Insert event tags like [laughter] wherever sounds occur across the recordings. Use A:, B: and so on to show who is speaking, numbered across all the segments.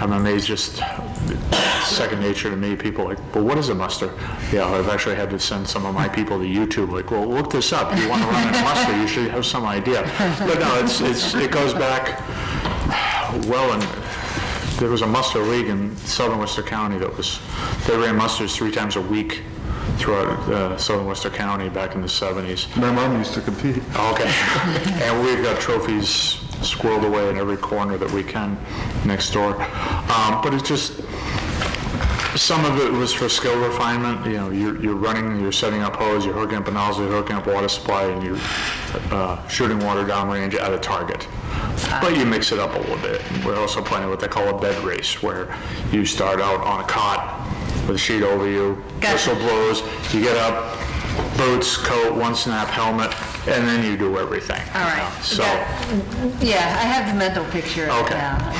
A: And then they just, second nature to me, people like, well, what is a muster? Yeah, I've actually had to send some of my people to YouTube, like, well, look this up. You want to run a muster, you should have some idea. But no, it's, it's, it goes back, well, and there was a muster league in southern Worcester County that was, they ran musters three times a week throughout uh, southern Worcester County back in the 70s.
B: My mom used to compete.
A: Okay. [laughs] And we've got trophies squirreled away in every corner that we can next door. Um, But it's just, some of it was for skill refinement, you know, you're, you're running, you're setting up hose, you're hooking up a nozzle, you're hooking up water supply, and you're uh, shooting water downrange at a target.
C: Ah.
A: But you mix it up a little bit. We're also playing what they call a bed race, where you start out on a cot with a sheet over you,
C: Gotcha.
A: whistle blows, you get up, boots, coat, one snap helmet, and then you do everything.
C: All
A: you know,
C: right.
A: So,
C: That- Yeah, I have the mental picture. of it
A: Okay. [laughs]
C: now.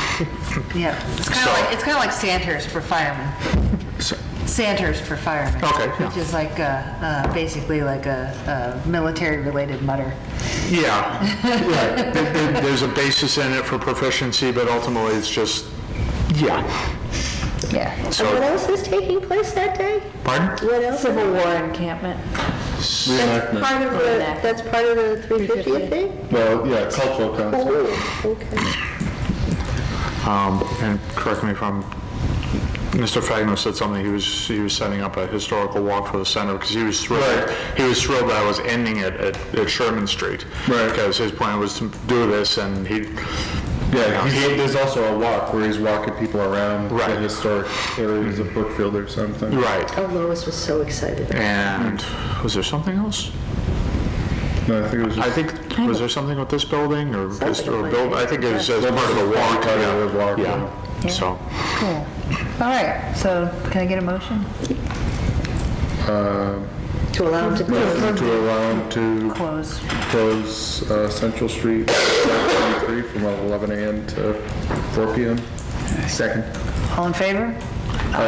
C: Yeah, it's kind
A: So-
C: of like, it's kind of like Sandhurst for firemen.
A: so-
C: Sandhurst for firemen.
A: Okay, yeah.
C: Which is like, uh, uh, basically like a a military-related mutter.
A: yeah,
B: [laughs]
A: right. There- there- There's a basis in it for proficiency, but ultimately it's just, yeah.
C: Yeah.
A: So-
D: What else is taking place that day?
A: Pardon?
D: What else?
E: Civil War encampment.
D: That's
B: Reenactment.
D: part of the,
E: Reenactment.
D: that's part of the 350th thing?
B: Well, yeah, cultural council.
D: Oh, okay.
A: Um, And correct me if I'm, Mr. Fagno said something, he was, he was setting up a historical walk for the center, because he was thrilled,
B: Right.
A: he was thrilled that I was ending it at at Sherman Street.
B: Right.
A: Because his plan was to do this, and he,
B: Yeah, he's- there's also a walk where he's walking people around the
A: Right.
B: historic areas of Brookfield or something.
A: right.
D: Oh, Lois was so excited.
A: And was there something else?
B: No, I think it was
A: I
B: just
A: think, was there something with this building or this,
D: Something
A: or
D: like
A: build, I think it was as part of the walk.
B: Part
A: yeah.
B: of the walk,
A: Yeah, so,
C: Cool. All right, so can I get a motion?
D: To allow him to
B: motion
D: close.
B: to allow him to
C: Close.
B: close uh, Central Street 73 from uh, 11 a.m. to 4 p.m. Second.
C: All in favor?
A: all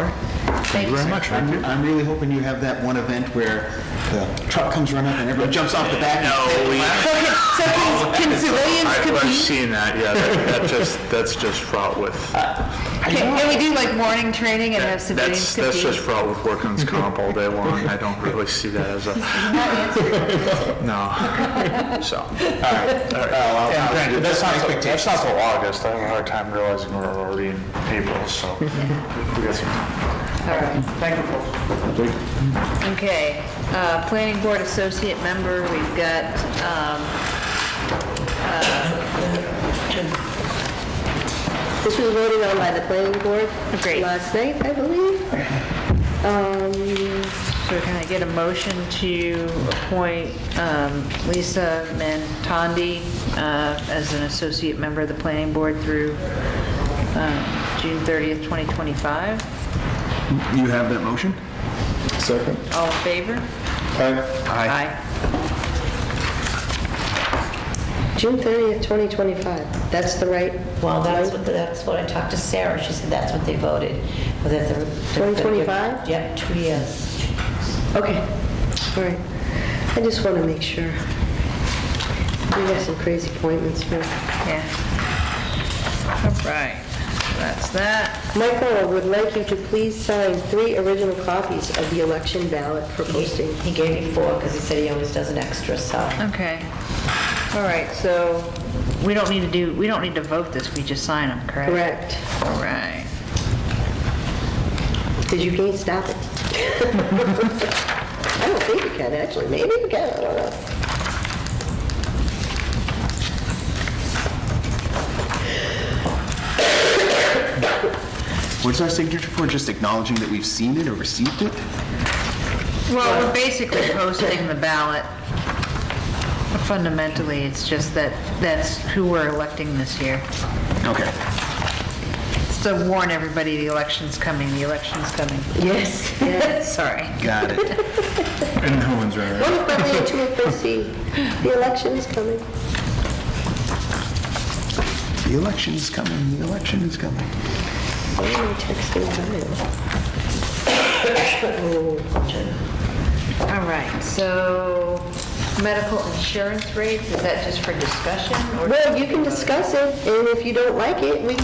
A: right. Thank you very much.
F: I'm, I'm really hoping you have that one event where the truck comes running up and everyone jumps off the back. No,
C: So can
A: [laughs]
C: can civilians
A: I've I've
C: compete?
A: seen that, yeah, that that just, that's just fraught
C: [laughs]
A: with,
C: Can can we do like warning training and have
A: that's,
C: civilians compete?
A: that's just fraught with workman's comp all day long. I don't really see that as a, no, so. That's not, that's not till August, I have a hard time realizing we're already in April, so we got some time.
C: All right. Okay, uh, Planning Board Associate Member, we've got, um,
D: This was voted on by the planning board
C: Great.
D: last night, I believe. Um,
C: so can I get a motion to appoint um, Lisa Mantondi uh, as an Associate Member of the Planning Board through uh, June 30th, 2025?
F: You have that motion?
B: Second.
C: All in favor?
B: Aye.
C: Aye.
D: June 30th, 2025. That's the right?
G: Well, that's
D: one?
G: what, that's what I talked to Sarah, she said that's what they voted, was that they're... they're gonna give-
D: 2025?
G: Yep, two years.
D: Okay, all right. I just want to make sure. We have some crazy appointments here.
C: Yeah. All right, so that's that.
D: Michael, I would like you to please sign three original copies of the election ballot for posting.
G: He gave me four, because he said he always does an extra, so...
C: Okay. All right, so we don't need to do, we don't need to vote this, we just sign them, correct?
D: Correct.
C: All right.
D: Because you can't stop it. [laughs] I don't think you can, actually. Maybe you can, I don't know.
F: What's our signature for? Just acknowledging that we've seen it or received it?
C: Well, we're [coughs] basically posting the ballot. Fundamentally, it's just that, that's who we're electing this year.
F: Okay.
C: It's to warn everybody the election's coming, the election's coming. [laughs]
D: Yes.
C: Sorry.
F: Got it. [laughs]
B: And no one's running.
D: What if I lead to a proceed? The election is coming.
F: The election is coming, the election is coming.
D: Why am I texting Ryan? [coughs]
C: All right, so medical insurance rates, is that just for discussion? or-
D: Well, you can discuss it, and if you don't like it, we